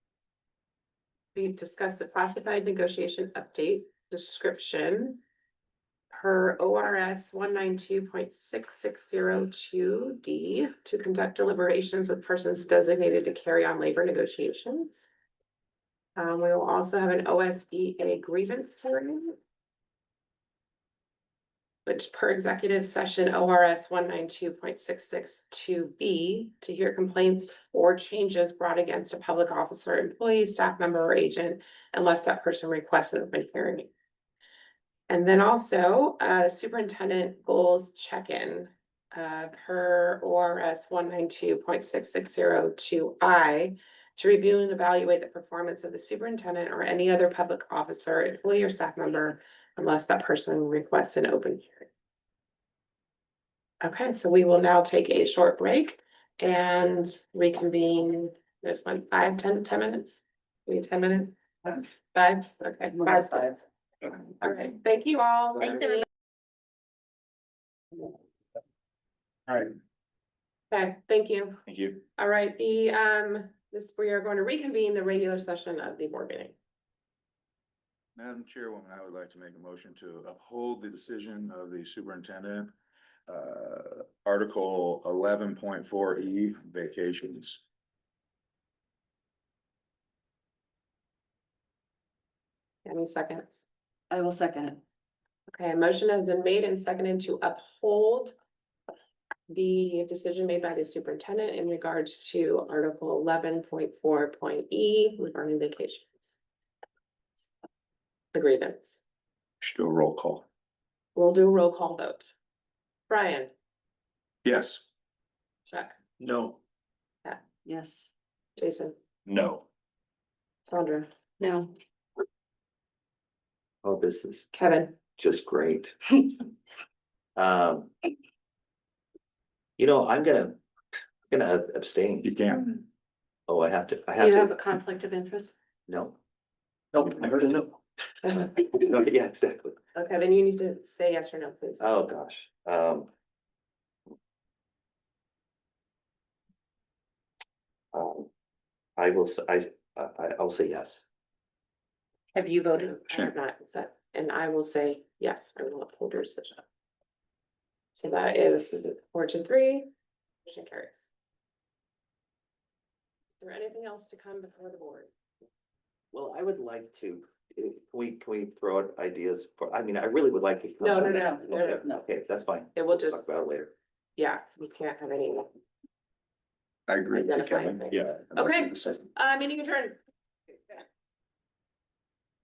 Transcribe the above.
we've discussed the classified negotiation update description. Per O R S one nine two point six six zero two D to conduct deliberations with persons designated to carry on labor negotiations. Um, we will also have an O S B A grievance hearing. Which per executive session O R S one nine two point six six two B to hear complaints or changes brought against a public officer, employee, staff member, or agent, unless that person requests an open hearing. And then also, uh, superintendent goals check-in, uh, per ORS one nine two point six six zero two I to review and evaluate the performance of the superintendent or any other public officer, employee, or staff member, unless that person requests an open hearing. Okay, so we will now take a short break and reconvene, there's one, five, ten, ten minutes? We ten minute, five, okay. five. All right, thank you all. Thanks, everybody. All right, Okay, thank you. thank you. All right, the, um, this, we are going to reconvene the regular session of the board meeting. Madam Chairwoman, I would like to make a motion to uphold the decision of the superintendent. Uh, Article eleven point four E vacations. Any seconds? I will second it. Okay, a motion has been made and seconded to uphold the decision made by the superintendent in regards to Article eleven point four point E regarding vacations. The grievance. Should do a roll call. We'll do a roll call vote. Brian, Yes. Chuck, No. Yes. Jason, No. Sandra, No. Oh, this is Kevin. just great. Um. You know, I'm gonna, gonna abstain. You can. Oh, I have to, I have You have to, a conflict of interest? no. Nope, I heard a no. Okay, No, Yeah, exactly. then you need to say yes or no, please. Oh, gosh, um. um, I will, s- I, I, I'll say yes. Have you voted? I Sure. have not, is that- and I will say, yes, I will uphold your decision. So that is four to three, motion carries. Is there anything else to come before the board? Well, I would like to, eh, can we, can we throw out ideas for, I mean, I really would like to. No, no, no, no, no, Okay, no. Okay, that's fine. It will Talk just, about it later. yeah, we can't have any, I agree. with you, Identify Kevin. things. Yeah. Okay. uh, meeting adjourned.